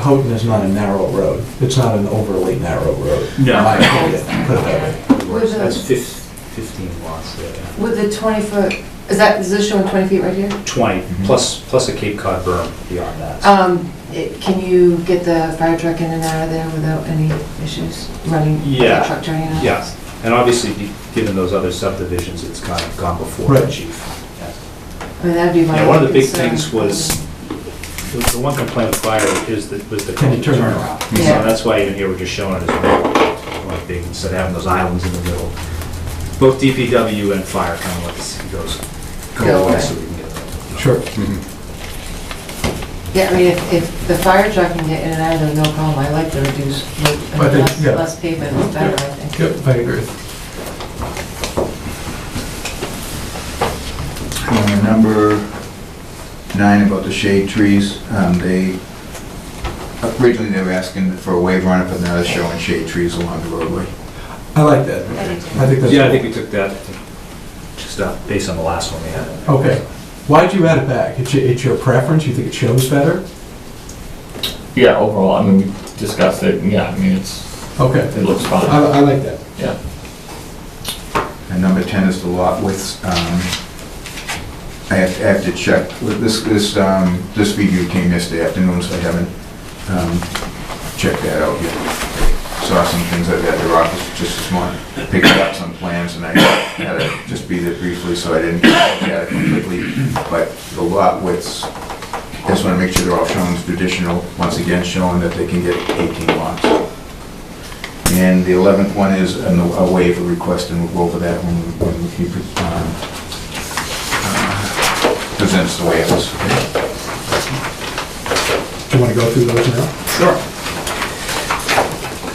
Houghton is not a narrow road. It's not an overly narrow road. No. In my opinion, put it that way. With That's the, fif- 15 lots there, yeah. with the 20 foot, is that, is this showing 20 feet right here? 20, plus, plus a Cape Cod berm beyond that. Um, it- Can you get the fire truck in and out of there without any issues running? Yeah. fire Truck turning out? Yes, and obviously, be- given those other subdivisions, it's kind of gone before the Right. chief. Yeah. I mean, that'd be my. Yeah, one of the big concern. things was, the the one complaint with fire is the, was the Can you turn turnaround. So Yeah. that's why even here, we're just showing it as one, one big, instead of having those islands in the middle. Both DPW and fire kind of lets it goes, Go go away away. so we can get that. Sure. Yeah, I mean, if, if the fire truck can get in and out of there, no problem. I like to reduce, weight. I I mean, think, less yeah. less pavement is better, I think. Yep, I agree. Uh, Number nine about the shade trees, um, they, originally they were asking for a waiver on it, but now they're showing shade trees along the roadway. I like that. I think that's. Yeah, I think we took that, just uh, based on the last one we had. Okay. Why'd you add it back? It's, your- it's your preference? You think it shows better? Yeah, overall, I mean, we discussed it, and yeah, I mean, it's, Okay. it looks I, fine, I like that. yeah. And number 10 is the lot width. um, I have, I have to check, this, this, um, this video came yesterday afternoon, so I haven't, um, checked that out yet. Saw some things I've got at their office just this morning, picked up some plans, and I had to just be there briefly, so I didn't get it completely. But the lot widths, just wanna make sure they're all shown as traditional, once again showing that they can get 18 lots. And the 11th one is an- a waiver request, and we'll go over that when when he um, uh, presents the waivers. Do you want to go through those now? Sure.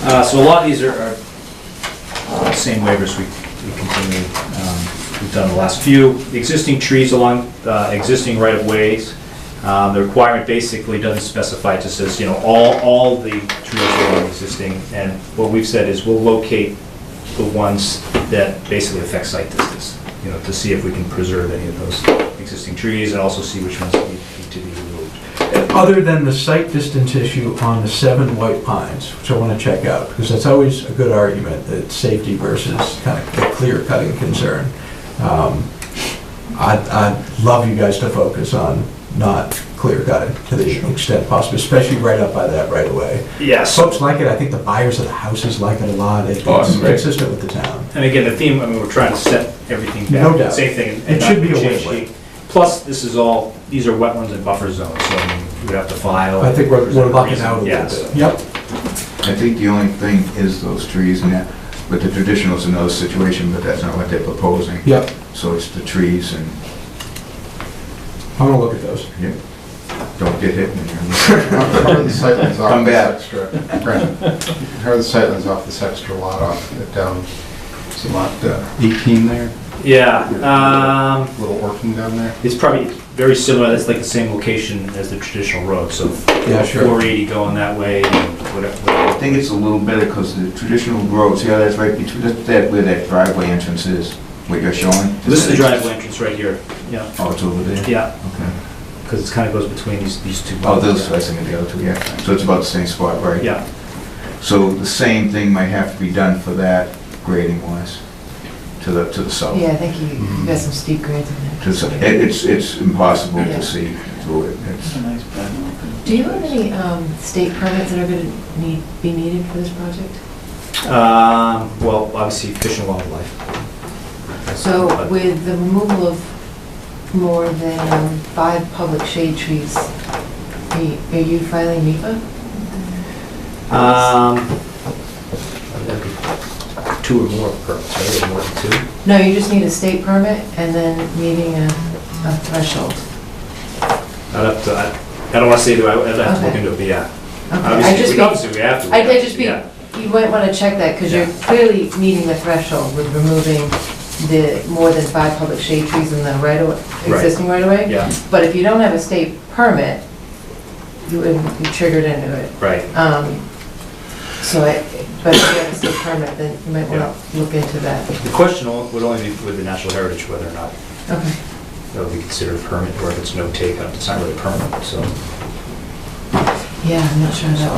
Uh, So a lot of these are are the same waivers we we continue, um, we've done the last few. The Existing trees along uh, existing right-of-ways, uh, the requirement basically doesn't specify, it just says, you know, all, all the trees are existing, and what we've said is we'll locate the ones that basically affect site distance, you know, to see if we can preserve any of those existing trees, and also see which ones need need to be removed. Other than the site distance issue on the seven white pines, which I want to check out, because that's always a good argument, that safety versus kind of a clear cutting concern. Um, I'd, I'd love you guys to focus on not clear cutting to the extent possible, especially right up by that right away. Yes. Folks like it, I think the buyers of the houses like it a lot, it's Oh, that's great. consistent with the town. And again, the theme, I mean, we're trying to set everything back. No doubt. Same thing. and It should be a not change win-win. the- Plus, this is all, these are wetlands and buffer zones, so I mean, we have to file. I think we're, we're locking present Oh, reason, out a yes. little bit. Yep, I think the only thing is those trees, and that, but the traditional's another situation, but that's not what they're proposing. yep, So it's the trees and, I'm gonna look at those. yeah, don't get hit. when you're- How are the sightlines Come off this back. extra? Brandon, How are the sightlines off this extra lot off, uh, down, it's a lot, uh, 18 there, Yeah, um, little orphan down there? it's probably very similar, it's like the same location as the traditional road, so. Yeah, sure. 480 going that way, and whatever. I think it's a little better, because the traditional roads, yeah, that's right between, that's that where that driveway entrance is, what you're showing. This is the driveway entrance right here, yeah, Oh, it's over there? yeah, Okay. because it kind of goes between these, these two. Oh, those, I buildings. think, the other two, yeah. So it's about the same spot, right? Yeah, So the same thing might have to be done for that grading wise, to the, to the south. Yeah, I think you, Mm-hmm. you got some steep grades in To the sou- there. it- It's, it's impossible Yeah. to see through it. It's- Do you have any, um, state permits that are gonna need, be needed for this project? um, well, obviously fish and wildlife. So But- with the removal of more than five public shade trees, are you- are you filing NEPA? Um, that'd be two or more permits, right, or more than two? No, you just need a state permit and then meeting a, a threshold. I'd have to, I, I don't wanna say, do I, I'd have to look Okay. into it, but yeah. Okay, I Obviously, just we- be, obviously, we have to. I did just be, yeah. you might want to check that because you're Yeah. clearly meeting the threshold with removing the more than five public shade trees in the right of, Right. existing right of way. Yeah, But if you don't have a state permit, you wouldn't be triggered into it. right, Um, So I, but if you have a state permit, then you might want to look into that. the question o- would only be with the National Heritage, whether or not Okay. that would be considered a permit, or if it's no take, it's not really a permit, so. Yeah, I'm not sure how that